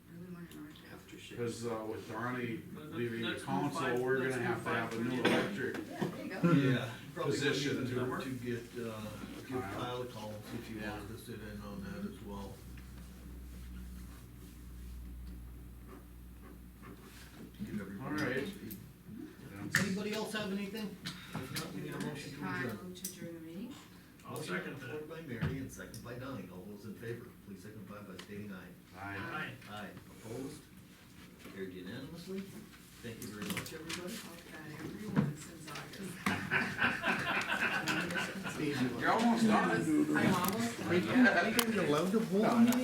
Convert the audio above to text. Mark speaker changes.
Speaker 1: Cause, uh, with Donnie
Speaker 2: Let- let-
Speaker 1: leaving the
Speaker 2: let's move
Speaker 1: council,
Speaker 2: five-
Speaker 1: we're
Speaker 2: let's
Speaker 1: gonna
Speaker 2: move
Speaker 1: have to have
Speaker 2: five
Speaker 1: a new
Speaker 2: twenty.
Speaker 1: electric.
Speaker 3: Yeah, there you go.
Speaker 4: Yeah,
Speaker 2: Probably wouldn't
Speaker 4: position
Speaker 2: even
Speaker 4: to,
Speaker 2: number.
Speaker 4: to get, uh, give
Speaker 1: Kyle.
Speaker 4: Kyle a call, see if he
Speaker 1: Yeah.
Speaker 4: wanted to sit in on that as well. To get everybody.
Speaker 1: Alright.
Speaker 4: up to speed.
Speaker 1: Yeah.
Speaker 4: Anybody else have anything? If not, we need a motion to
Speaker 3: I
Speaker 4: adjourn.
Speaker 3: move to adjourn the meeting.
Speaker 2: I'll
Speaker 4: Motion
Speaker 2: second that.
Speaker 4: Supported by Mary and second by Donnie, all those in favor, please signify by stating aye.
Speaker 1: Aye.
Speaker 2: Aye.
Speaker 4: Aye, opposed, carried unanimously, thank you very much, everybody.
Speaker 3: I've done everyone since August.
Speaker 1: You're almost done.
Speaker 3: I'm almost done.
Speaker 4: You're allowed to vote.